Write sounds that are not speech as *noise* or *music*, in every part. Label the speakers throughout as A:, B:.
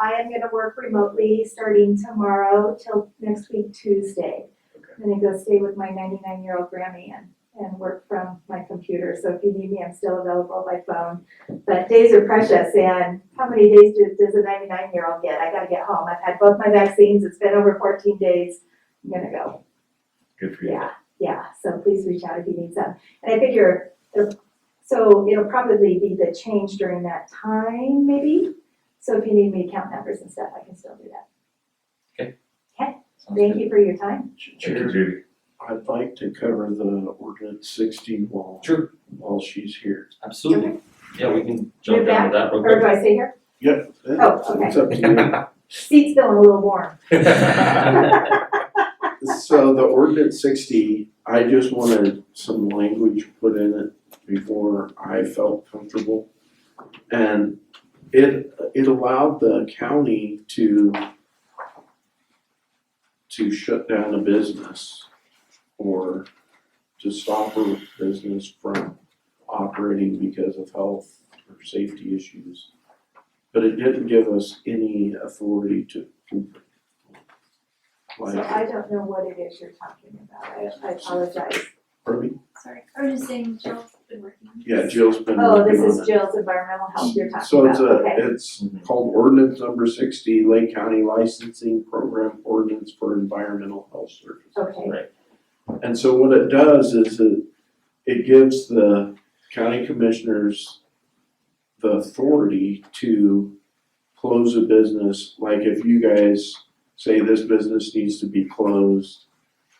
A: I am gonna work remotely starting tomorrow till next week Tuesday.
B: Okay.
A: I'm gonna go stay with my ninety-nine year old Grammy and, and work from my computer, so if you need me, I'm still available by phone. But days are precious and how many days do- does a ninety-nine year old get? I gotta get home. I've had both my vaccines, it's been over fourteen days. I'm gonna go.
B: Good for you.
A: Yeah, yeah, so please reach out if you need some. And I figure, it'll- so it'll probably be the change during that time, maybe? So if you need me to count numbers and stuff, I can still do that.
B: Sounds
A: Thank
B: good.
A: you for your time.
B: Thank you,
C: Chair,
B: Judy.
C: I'd like to cover the ordinance sixty while,
D: Sure,
C: while she's here.
D: absolutely. Yeah, we can jump
A: Move
D: down to that real
A: Or do
D: quick.
A: I stay here?
C: Yep.
A: Oh, okay.
C: It's up to you.
A: Seat's feeling a little warm.
C: So the ordinance sixty, I just wanted some language put in it before I felt comfortable. And it, it allowed the county to to shut down a business or to stop a business from operating because of health or safety issues. But it didn't give us any authority to.
A: So
C: Like,
A: I don't know what it is you're talking about. I I apologize.
C: pardon me?
E: Sorry, I was just saying Jill's been working on
C: Yeah, Jill's been
A: Oh, this
C: working on
A: is
C: it.
A: Jill's environmental health you're talking
C: So it's
A: about,
C: a,
A: okay.
C: it's called ordinance number sixty, Lake County Licensing Program Ordinance for Environmental Health Services.
A: Okay,
C: And so what it does is it, it gives the county commissioners the authority to close a business, like if you guys say this business needs to be closed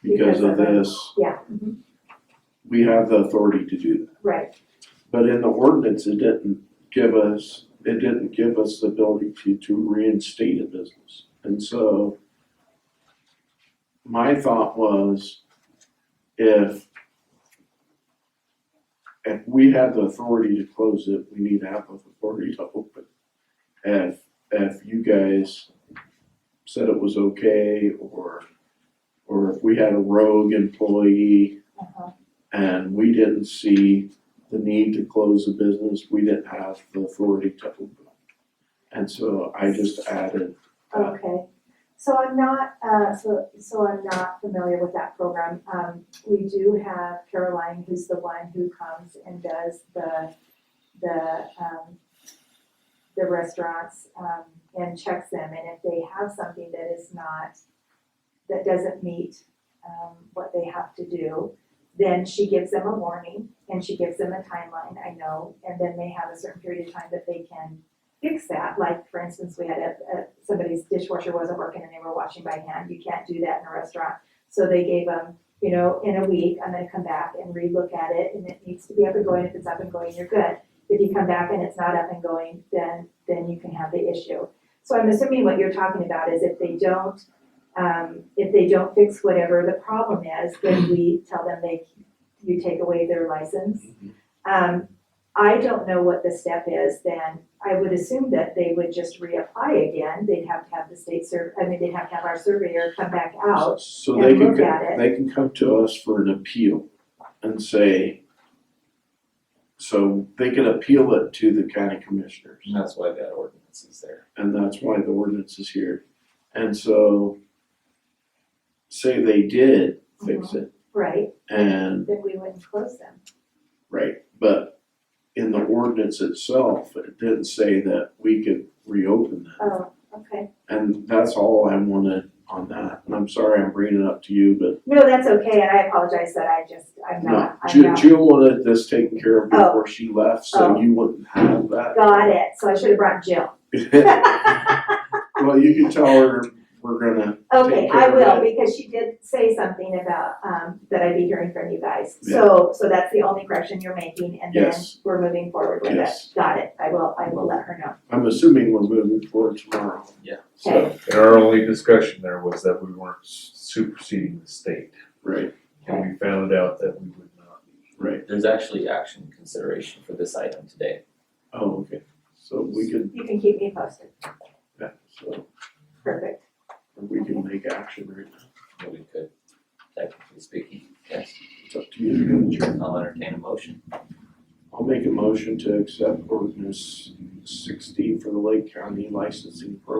C: because of
A: Because of it.
C: this,
A: yeah, mhm,
C: we have the authority to do that.
A: right.
C: But in the ordinance, it didn't give us, it didn't give us the ability to, to reinstate a business. And so my thought was if if we have the authority to close it, we need to have the authority to open. If, if you guys said it was okay or, or if we had a rogue employee
A: uh-huh.
C: and we didn't see the need to close the business, we didn't have the authority to open. And so I just added,
A: Okay, so I'm not, uh, so, so I'm not familiar with that program. Um, we do have Caroline, who's the one who comes and does the, the, um, the restaurants, um, and checks them, and if they have something that is not, that doesn't meet, um, what they have to do, then she gives them a warning, and she gives them a timeline, I know, and then they have a certain period of time that they can fix that, like for instance, we had a, a, somebody's dishwasher wasn't working and they were washing by hand, you can't do that in a restaurant. So they gave them, you know, in a week, I'm gonna come back and relook at it and it needs to be up and going, if it's up and going, you're good. If you come back and it's not up and going, then, then you can have the issue. So I'm assuming what you're talking about is if they don't, um, if they don't fix whatever the problem is, then we tell them they, you take away their license. Um, I don't know what the step is, then I would assume that they would just reapply again. They'd have to have the state sur, I mean, they'd have to have our surveyor come back out.
C: so they
A: And
C: can,
A: look at it.
C: they can come to us for an appeal and say, so they can appeal it to the county commissioners.
D: And *laughs* that's why that ordinance is there.
C: and that's why the ordinance is here. And so say they did fix
A: Uh-huh.
C: it
A: Right,
C: and
A: then we wouldn't close them.
C: Right, but in the ordinance itself, it didn't say that we could reopen that.
A: Oh, okay.
C: And that's all I wanted on that. And I'm sorry I'm bringing it up to you, but
A: No, that's okay, and I apologize that I just, I'm
C: no.
A: not, I'm
C: Jill,
A: not.
C: Jill wanted this taken care of
A: Oh.
C: before she left, so
A: Oh.
C: you wouldn't have
A: *laughs*
C: that. *laughs*
A: Got it, so I should have brought Jill.
C: Well, you can tell her we're gonna,
A: Okay,
C: Take care
A: I
C: of
A: will,
C: that.
A: because she did say something about, um, that I'd be hearing from you guys. So, so that's the only correction you're making, and then
C: Yes.
A: we're moving forward with it.
C: Yes.
A: Got it, I will, I will let her know.
C: I'm assuming we're moving forward tomorrow.
D: Yeah.
C: So,
B: And our only discussion there was that we weren't superseding the state.
C: right,
B: And we found out that we would not be.
C: right.
D: There's actually action consideration for this item today.
C: Oh, okay. So we can,
A: You can keep me posted,
C: yeah, so
A: perfect.
C: we can make action right now.
D: Well, We could, technically speaking, yes,
C: It's up to you.
D: I'll entertain a motion.
C: I'll make a motion to accept ordinance sixty for the Lake County licensing program.